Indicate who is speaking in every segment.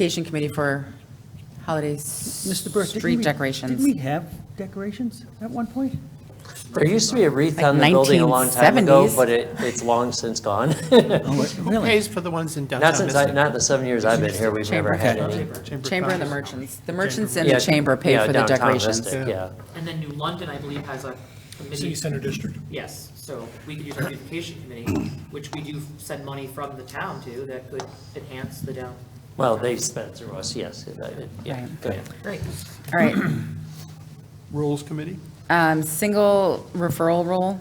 Speaker 1: Education Committee for holidays, Mr.
Speaker 2: Burke, didn't
Speaker 1: street
Speaker 2: we-
Speaker 1: decorations.
Speaker 2: Didn't we have decorations at one point?
Speaker 3: There used to be a wreath
Speaker 1: Like
Speaker 3: on the building a long time ago,
Speaker 1: 1970s.
Speaker 3: but it, it's long since gone.
Speaker 2: Oh,
Speaker 4: Who
Speaker 2: Really?
Speaker 4: pays for the ones in downtown
Speaker 3: Not since, I-
Speaker 4: Mystic?
Speaker 3: not the seven years I've been here, we've never had
Speaker 1: Chamber.
Speaker 3: any.
Speaker 4: Chamber of
Speaker 1: Chamber and the
Speaker 4: Commerce.
Speaker 1: merchants. The merchants and
Speaker 3: Yeah,
Speaker 1: the chamber
Speaker 3: yeah,
Speaker 1: paid for the
Speaker 3: downtown
Speaker 1: decorations.
Speaker 3: Mystic, Yeah,
Speaker 5: And then New London, I believe, has a
Speaker 6: City
Speaker 5: committee.
Speaker 6: Center District.
Speaker 5: Yes, so we could use our beautification committee, which we do send money from the town to that could enhance the down.
Speaker 3: well, they spent through us, yes, it- it- yeah,
Speaker 1: Right.
Speaker 3: go ahead.
Speaker 5: Great.
Speaker 1: All right,
Speaker 4: Rules Committee?
Speaker 1: um, single referral rule,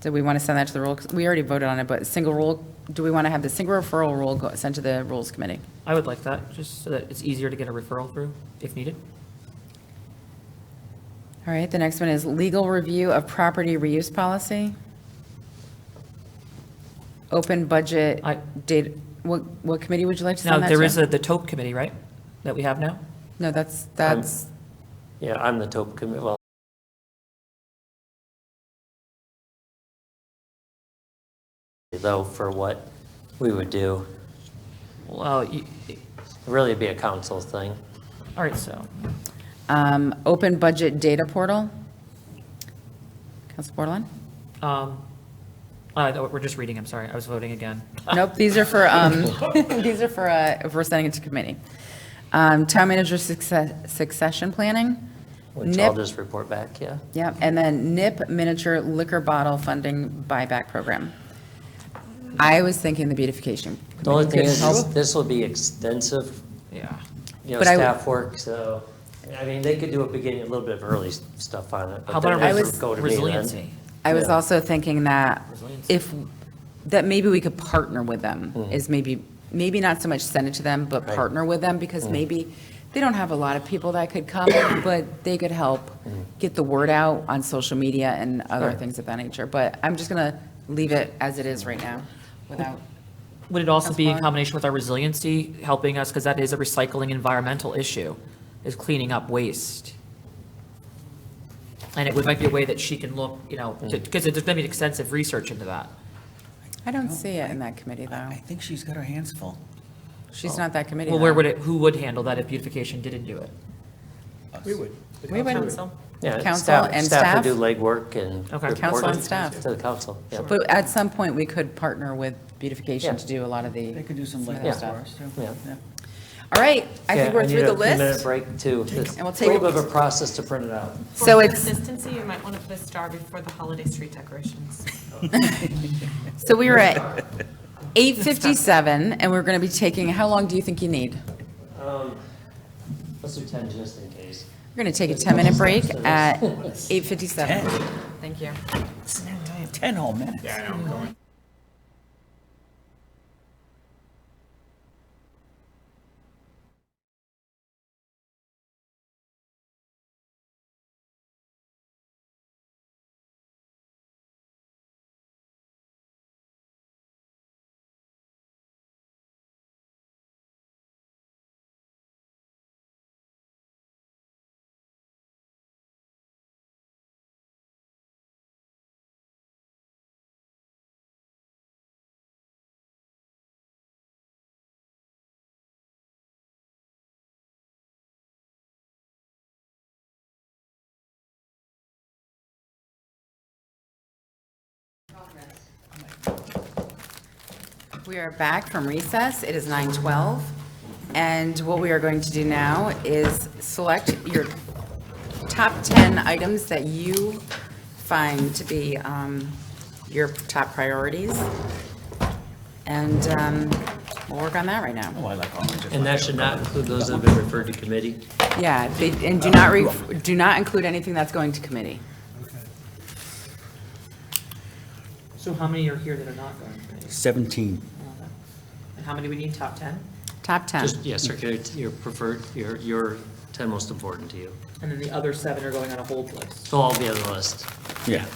Speaker 1: do we want to send that to the rule? We already voted on it, but single rule, do we want to have the single referral rule go- sent to the Rules Committee?
Speaker 5: I would like that, just so that it's easier to get a referral through if needed.
Speaker 1: All right, the next one is legal review of property reuse policy. Open budget,
Speaker 5: I-
Speaker 1: data, what, what committee would you like to
Speaker 5: Now,
Speaker 1: send that to?
Speaker 5: there is a- the TOPE committee, right, that we have now?
Speaker 1: No, that's, that's,
Speaker 3: Yeah, I'm the top committee, well, though, for what we would do,
Speaker 5: Well, you-
Speaker 3: really be a council thing.
Speaker 5: all right, so,
Speaker 1: um, open budget data portal. Council Bordelon?
Speaker 5: um, uh, no, we're just reading, I'm sorry, I was voting again.
Speaker 1: Nope, these are for, um, these are for, uh, if we're sending it to committee. Um, Town manager success- succession planning.
Speaker 3: Which I'll
Speaker 1: NIP.
Speaker 3: just report back, yeah.
Speaker 1: Yep, and then NIP miniature liquor bottle funding buyback program. I was thinking the beautification.
Speaker 3: The only thing
Speaker 1: committee
Speaker 3: is,
Speaker 1: could
Speaker 3: is
Speaker 1: help.
Speaker 3: this will be extensive,
Speaker 5: Yeah.
Speaker 3: you know,
Speaker 1: But I would-
Speaker 3: staff work, so, I mean, they could do a beginning, a little bit of early s- stuff on it. but
Speaker 5: How about
Speaker 3: then
Speaker 5: a
Speaker 3: it would
Speaker 5: res-
Speaker 3: go to me then.
Speaker 5: resiliency?
Speaker 1: I was
Speaker 3: yeah.
Speaker 1: also thinking that
Speaker 5: Resilience.
Speaker 1: if, that maybe we could partner with them, is maybe, maybe not so much send it to them, but
Speaker 3: Mm-hmm. Right. Mm-hmm.
Speaker 1: partner with them, because maybe they don't have a lot of people that could come, but they could help
Speaker 3: Mm-hmm.
Speaker 1: get the word out on social media and other
Speaker 3: Right.
Speaker 1: things of that nature. But I'm just going to leave it as it is right now, without.
Speaker 5: Would it also
Speaker 1: That's
Speaker 5: be in
Speaker 1: fine.
Speaker 5: combination with our resiliency helping us, because that is a recycling environmental issue, is cleaning up waste? And it would, might be a way that she can look, you know, because there's been extensive research into that.
Speaker 1: I don't see it in that committee, though.
Speaker 2: I think she's got her hands full.
Speaker 1: She's not that committee,
Speaker 5: Well, where
Speaker 1: though.
Speaker 5: would it, who would handle that if beautification didn't do it?
Speaker 4: We would.
Speaker 1: We would-
Speaker 3: Yeah,
Speaker 1: Council
Speaker 3: staff,
Speaker 1: and
Speaker 3: staff
Speaker 1: staff?
Speaker 3: would do legwork and.
Speaker 5: Okay.
Speaker 3: report
Speaker 1: Council and staff.
Speaker 3: To the council, yeah.
Speaker 1: But at some point, we could partner with beautification to do a lot of the.
Speaker 2: They could do some
Speaker 1: of
Speaker 2: light
Speaker 1: that
Speaker 2: work
Speaker 1: stuff.
Speaker 2: for us, too.
Speaker 3: Yeah.
Speaker 1: All right, I
Speaker 3: Yeah,
Speaker 1: think we're
Speaker 3: need
Speaker 1: through the
Speaker 3: a few-minute
Speaker 1: list.
Speaker 3: break too.
Speaker 1: And we'll
Speaker 3: It's a
Speaker 1: take
Speaker 3: little
Speaker 1: a-
Speaker 3: bit of a process to print it out.
Speaker 1: So
Speaker 7: For
Speaker 1: it's-
Speaker 7: Consistency, you might want to put a star before the holiday street decorations.
Speaker 1: So we were at 8:57, and we're going to be taking, how long do you think you need?
Speaker 3: Let's do 10 just in case.
Speaker 1: We're going to take a 10-minute break at 8:57.
Speaker 7: Thank you.
Speaker 2: Ten whole minutes.
Speaker 1: We are back from recess. It is 9:12, and what we are going to do now is select your top 10 items that you find to be um, your top priorities, and um, we'll work on that right now.
Speaker 2: Oh, I like orange.
Speaker 3: And that should not include those that have been referred to committee?
Speaker 1: Yeah, they- and do not, re- do not include anything that's going to committee.
Speaker 5: So how many are here that are not going to committees?
Speaker 2: Seventeen.
Speaker 5: And how many we need, top 10?
Speaker 1: Top 10.
Speaker 3: Just, yeah, circulate your preferred, your, your 10 most important to you.
Speaker 5: And then the other seven are going on a hold list.
Speaker 3: So all be on the list.
Speaker 2: Yeah.